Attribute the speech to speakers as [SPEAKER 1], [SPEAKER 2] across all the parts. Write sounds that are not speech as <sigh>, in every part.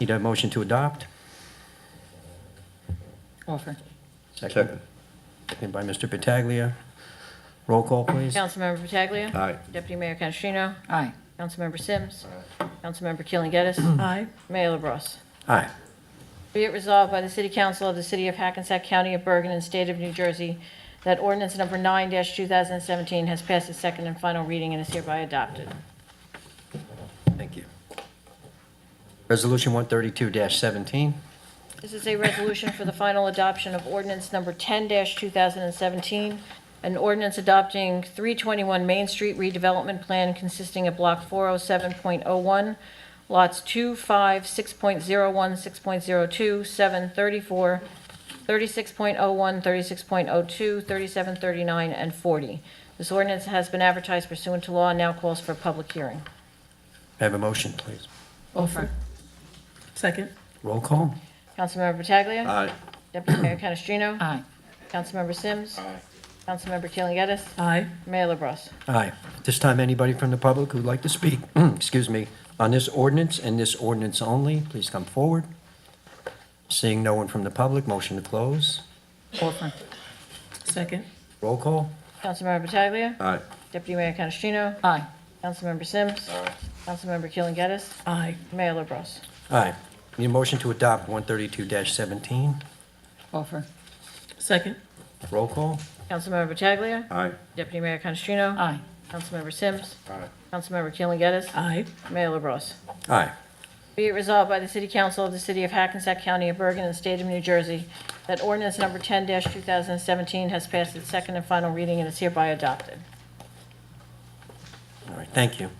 [SPEAKER 1] Need a motion to adopt?
[SPEAKER 2] Offer.
[SPEAKER 1] Second. Seconded by Mr. Pataglia. Roll call, please.
[SPEAKER 3] Councilmember Pataglia.
[SPEAKER 4] Aye.
[SPEAKER 3] Deputy Mayor Canestrino.
[SPEAKER 2] Aye.
[SPEAKER 3] Councilmember Sims. Councilmember Keeling Geddes.
[SPEAKER 5] Mm.
[SPEAKER 2] Aye.
[SPEAKER 3] Mayor LaBrus.
[SPEAKER 1] Aye.
[SPEAKER 3] Be it resolved by the City Council of the City of Hackensack County of Bergen and State of New Jersey that ordinance number 9-2017 has passed its second and final reading and is hereby adopted.
[SPEAKER 1] Thank you. Resolution 132-17.
[SPEAKER 3] This is a resolution for the final adoption of ordinance number 10-2017, an ordinance adopting 321 Main Street redevelopment plan consisting of Block 407.01, lots 2, 5, 6.01, 6.02, 7, 34, 36.01, 36.02, 37, 39, and 40. This ordinance has been advertised pursuant to law and now calls for a public hearing.
[SPEAKER 1] May I have a motion, please?
[SPEAKER 2] Offer. Second.
[SPEAKER 1] Roll call?
[SPEAKER 3] Councilmember Pataglia.
[SPEAKER 4] Aye.
[SPEAKER 3] Deputy Mayor Canestrino.
[SPEAKER 2] Aye.
[SPEAKER 3] Councilmember Sims. Councilmember Keeling Geddes.
[SPEAKER 2] Aye.
[SPEAKER 3] Mayor LaBrus.
[SPEAKER 1] Aye. At This time, anybody from the public who'd like to speak, <clears throat> excuse me, on this ordinance and this ordinance only, please come forward. Seeing no one from the public, motion to close.
[SPEAKER 2] Offer. Second.
[SPEAKER 1] Roll call?
[SPEAKER 3] Councilmember Pataglia.
[SPEAKER 4] Aye.
[SPEAKER 3] Deputy Mayor Canestrino.
[SPEAKER 2] Aye.
[SPEAKER 3] Councilmember Sims. Councilmember Keeling Geddes.
[SPEAKER 2] Aye.
[SPEAKER 3] Mayor LaBrus.
[SPEAKER 1] Aye. Need a motion to adopt 132-17.
[SPEAKER 2] Offer. Second.
[SPEAKER 1] Roll call?
[SPEAKER 3] Councilmember Pataglia.
[SPEAKER 4] Aye.
[SPEAKER 3] Deputy Mayor Canestrino.
[SPEAKER 2] Aye.
[SPEAKER 3] Councilmember Sims.
[SPEAKER 4] Aye.
[SPEAKER 3] Councilmember Keeling Geddes.
[SPEAKER 2] Aye.
[SPEAKER 3] Mayor LaBrus.
[SPEAKER 1] Aye.
[SPEAKER 3] Be it resolved by the City Council of the City of Hackensack County of Bergen and State of New Jersey that ordinance number 10-2017 has passed its second and final reading and is hereby adopted.
[SPEAKER 1] All right, thank you.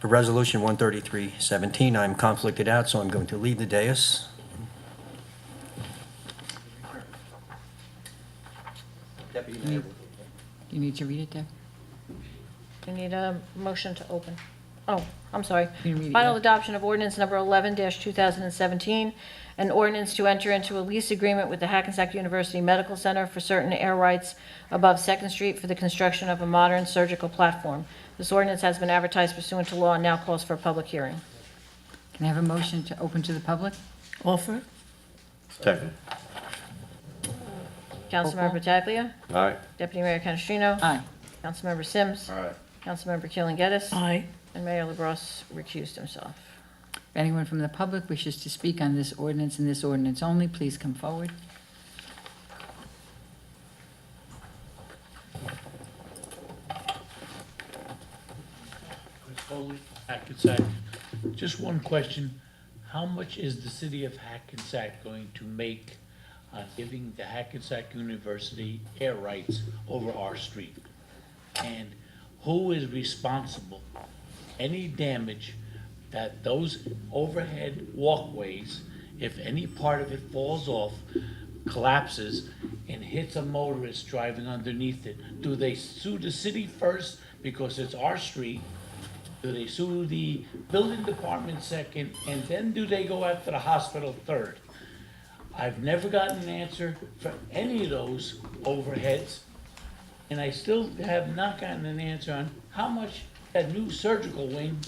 [SPEAKER 1] For Resolution 133-17, I'm conflicted out, so I'm going to leave the dais.
[SPEAKER 5] You need to read it, Deb?
[SPEAKER 3] We need a motion to open. Oh, I'm sorry.
[SPEAKER 5] You can read it,
[SPEAKER 3] Final
[SPEAKER 5] yeah.
[SPEAKER 3] adoption of ordinance number 11-2017, an ordinance to enter into a lease agreement with the Hackensack University Medical Center for certain air rights above Second Street for the construction of a modern surgical platform. This ordinance has been advertised pursuant to law and now calls for a public hearing.
[SPEAKER 5] Can I have a motion to open to the public?
[SPEAKER 2] Offer.
[SPEAKER 4] Second.
[SPEAKER 3] Councilmember Pataglia.
[SPEAKER 4] Aye.
[SPEAKER 3] Deputy Mayor Canestrino.
[SPEAKER 5] Aye.
[SPEAKER 3] Councilmember Sims.
[SPEAKER 4] Aye.
[SPEAKER 3] Councilmember Keeling Geddes.
[SPEAKER 2] Aye.
[SPEAKER 3] And Mayor LaBrus recused himself.
[SPEAKER 5] If anyone from the public wishes to speak on this ordinance and this ordinance only, please come forward.
[SPEAKER 6] Chris Foley, Hackensack. Just one question. How much is the city of Hackensack going to make on giving the Hackensack University air rights over our street? And who is responsible? Any damage that those overhead walkways, if any part of it falls off, collapses and hits a motorist driving underneath it, do they sue the city first because it's our street? Do they sue the building department second, and then do they go after the hospital third? I've never gotten an answer for any of those overheads, and I still have not gotten an answer on how much that new surgical wing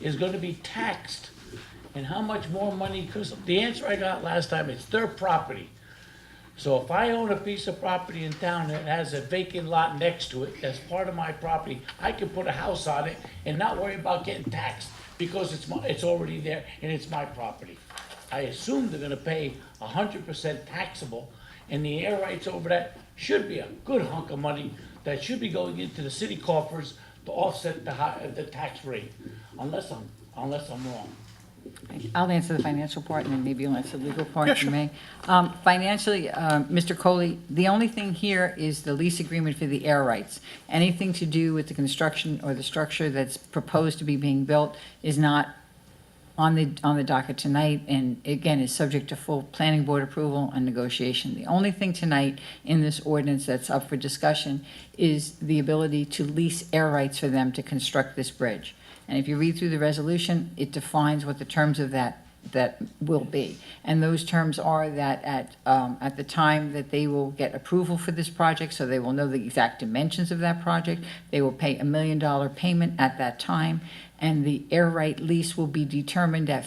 [SPEAKER 6] is gonna be taxed, and how much more money, because the answer I got last time, it's their property. So if I own a piece of property in town that has a vacant lot next to it, that's part of my property, I can put a house on it and not worry about getting taxed because it's my, it's already there and it's my property. I assume they're gonna pay hundred percent taxable and the air rights over that should be a good hunk of money that should be going into the city coffers to offset the high, the tax rate, unless I'm, unless I'm wrong.
[SPEAKER 5] I'll answer the financial part, and then maybe you'll answer the legal part, if you may. Um, Financially, uh, Mr. Coley, the only thing here is the lease agreement for the air rights. Anything to do with the construction or the structure that's proposed to be being built is not on the, on the docket tonight, and again, is subject to full planning board approval and negotiation. The only thing tonight in this ordinance that's up for discussion is the ability to lease air rights for them to construct this bridge. And if you read through the resolution, it defines what the terms of that, that will be. And those terms are that at, um, at the time that they will get approval for this project, so they will know the exact dimensions of that project, they will pay a million dollar payment at that time, and the air right lease will be determined at